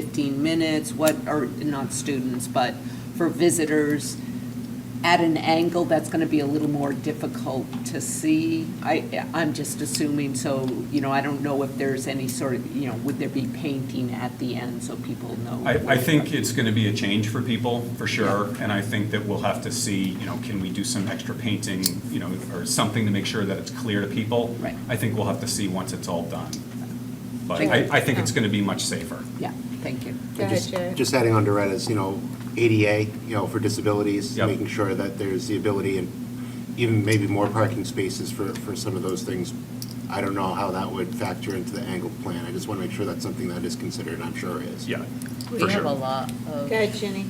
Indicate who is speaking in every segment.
Speaker 1: 15 minutes, what, or not students, but for visitors at an angle that's going to be a little more difficult to see. I, I'm just assuming, so, you know, I don't know if there's any sort of, you know, would there be painting at the end so people know?
Speaker 2: I, I think it's going to be a change for people, for sure, and I think that we'll have to see, you know, can we do some extra painting, you know, or something to make sure that it's clear to people?
Speaker 1: Right.
Speaker 2: I think we'll have to see once it's all done. But
Speaker 1: Thank
Speaker 2: I,
Speaker 1: you.
Speaker 2: I think it's going to be much safer.
Speaker 1: Yeah, thank you.
Speaker 3: Go ahead,
Speaker 4: Just-
Speaker 3: Jared.
Speaker 4: Just adding on to Retta's, you know, ADA, you know, for disabilities,
Speaker 2: Yep.
Speaker 4: making sure that there's the ability and even maybe more parking spaces for, for some of those things. I don't know how that would factor into the angle plan. I just want to make sure that's something that is considered, and I'm sure it is.
Speaker 2: Yeah,
Speaker 5: We have
Speaker 2: for
Speaker 5: a
Speaker 2: sure.
Speaker 5: lot
Speaker 3: Go
Speaker 5: of
Speaker 3: ahead, Ginny.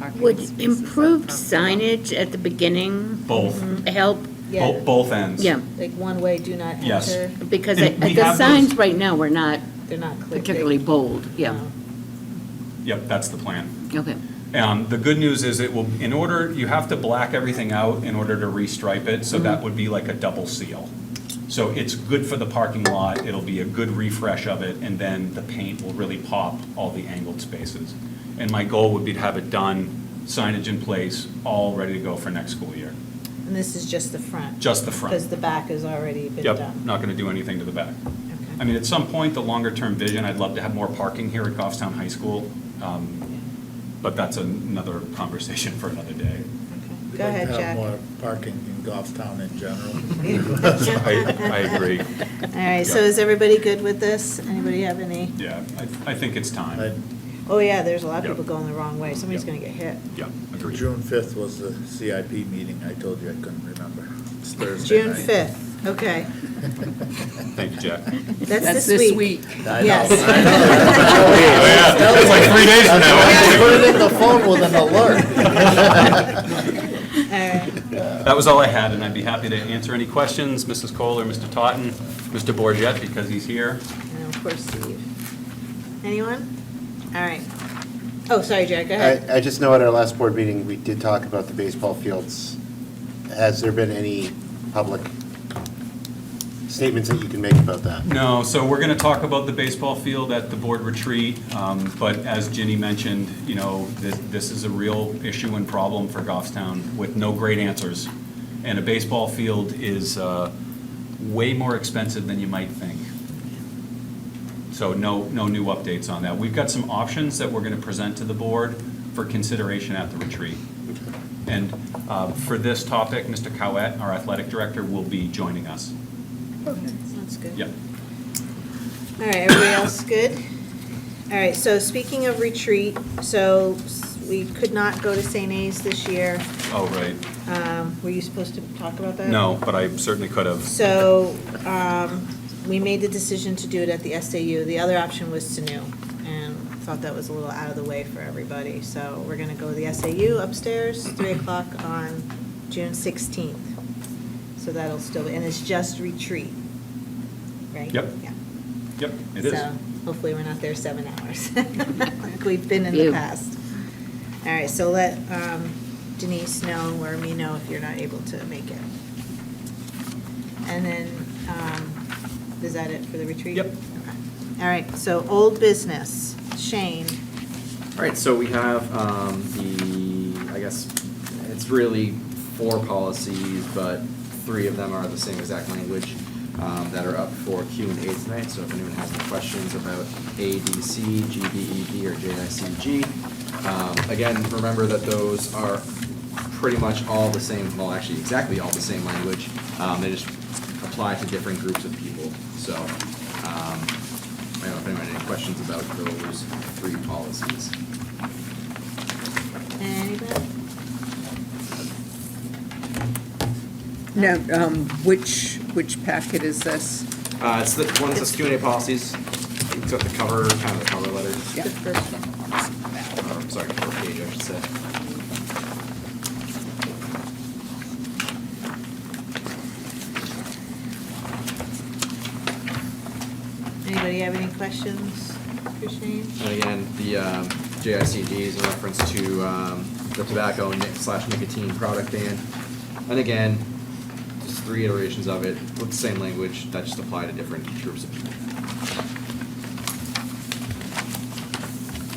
Speaker 5: parking spaces.
Speaker 6: Would improved
Speaker 5: sign
Speaker 6: signage at the beginning?
Speaker 2: Both.
Speaker 1: Mm-hmm.
Speaker 6: Help,
Speaker 3: Yeah,
Speaker 2: Both, both ends.
Speaker 6: yeah,
Speaker 3: like one way, do not
Speaker 2: Yes.
Speaker 3: enter.
Speaker 6: because I-
Speaker 2: And we
Speaker 6: the
Speaker 2: have those-
Speaker 6: signs right now were not
Speaker 3: They're not Oh. clear.
Speaker 6: particularly bold, yeah,
Speaker 2: Yep, that's the plan.
Speaker 6: okay.
Speaker 2: Um, The good news is it will, in order, you have to black everything out in order to restripe it, so that would be like a double seal. So it's good for the parking lot, it'll be a good refresh of it, and then the paint will really pop all the angled spaces. And my goal would be to have it done, signage in place, all ready to go for next school year.
Speaker 3: And this is just the front?
Speaker 2: Just the front.
Speaker 3: Because the back has already been
Speaker 2: Yep,
Speaker 3: done.
Speaker 2: not going to do anything to the back.
Speaker 3: Okay.
Speaker 2: I mean, at some point, the longer-term vision, I'd love to have more parking here at Goffstown High School, um, but that's another conversation for another day.
Speaker 3: Okay.
Speaker 7: We'd
Speaker 3: Go
Speaker 7: like to
Speaker 3: ahead,
Speaker 7: have
Speaker 3: Jack. All
Speaker 7: more Parking in Goffstown in general.
Speaker 2: I, I agree,
Speaker 3: right, so is everybody good with this? Anybody have any?
Speaker 2: yeah, I, I think it's
Speaker 7: I-
Speaker 2: time.
Speaker 3: Oh, yeah, there's a lot of
Speaker 2: Yep.
Speaker 3: people going the wrong way. Somebody's
Speaker 2: Yep.
Speaker 3: going to get hit.
Speaker 2: Yeah, agreed.
Speaker 7: June 5th was the CIP meeting, I told you I couldn't remember. It's Thursday
Speaker 3: June
Speaker 7: night.
Speaker 3: 5th, okay.
Speaker 2: Thank you, Jack.
Speaker 3: That's this week.
Speaker 7: I know.
Speaker 3: Yes.
Speaker 7: I know.
Speaker 2: It's like three days from
Speaker 7: I put it in the phone with an alert.
Speaker 3: All right.
Speaker 2: That was all I had, and I'd be happy to answer any questions, Mrs. Cole or Mr. Totten, Mr. Borget, because he's here.
Speaker 3: And of course, Steve. Anyone? All right. Oh, sorry, Jack, go ahead.
Speaker 4: I, I just know at our last board meeting, we did talk about the baseball fields. Has there been any public statements that you can make about that?
Speaker 2: No, so we're going to talk about the baseball field at the board retreat, um, but as Ginny mentioned, you know, this, this is a real issue and problem for Goffstown with no great answers. And a baseball field is uh, way more expensive than you might think. So no, no new updates on that. We've got some options that we're going to present to the board for consideration at the retreat. And uh, for this topic, Mr. Cowett, our athletic director, will be joining us.
Speaker 3: That's good.
Speaker 2: Yeah.
Speaker 3: All right, everybody else good? All right, so speaking of retreat, so s- we could not go to St. A's this year.
Speaker 2: Oh, right.
Speaker 3: Um, Were you supposed to talk about that?
Speaker 2: No, but I certainly could have.
Speaker 3: So um, we made the decision to do it at the SAU. The other option was Sanu, and thought that was a little out of the way for everybody. So we're going to go to the SAU upstairs, 3 o'clock on June 16th. So that'll still, be and it's just retreat, right?
Speaker 2: Yep.
Speaker 3: Yeah.
Speaker 2: Yep, it is.
Speaker 3: So hopefully we're not there seven hours, like we've been in the
Speaker 6: Ew.
Speaker 3: past. All right, so let um, Denise know or me know if you're not able to make it. And then, um, is that it for the retreat?
Speaker 2: Yep.
Speaker 3: Okay. All right, so old business, Shane.
Speaker 8: All right, so we have um, the, I guess, it's really four policies, but three of them are the same exact language um, that are up for Q and A tonight. So if anyone has any questions about A, B, C, G, B, E, D, or J, I, C, G. um, Again, remember that those are pretty much all the same, well, actually, exactly all the same language. Um, They just apply to different groups of people. So um, I don't know if anyone had any questions about those three policies.
Speaker 3: Anybody?
Speaker 1: Now, um, which, which packet is this?
Speaker 8: Uh, it's the, one that says Q and A policies, it's got the cover, kind of the cover letter,
Speaker 3: The first one.
Speaker 8: or, sorry, cover page, I should say.
Speaker 3: Anybody have any questions for Shane?
Speaker 8: And again, the, um, JICD is in reference to, um, the tobacco nic- slash nicotine product ban. And again, just three iterations of it, with the same language, that just apply to different groups of people.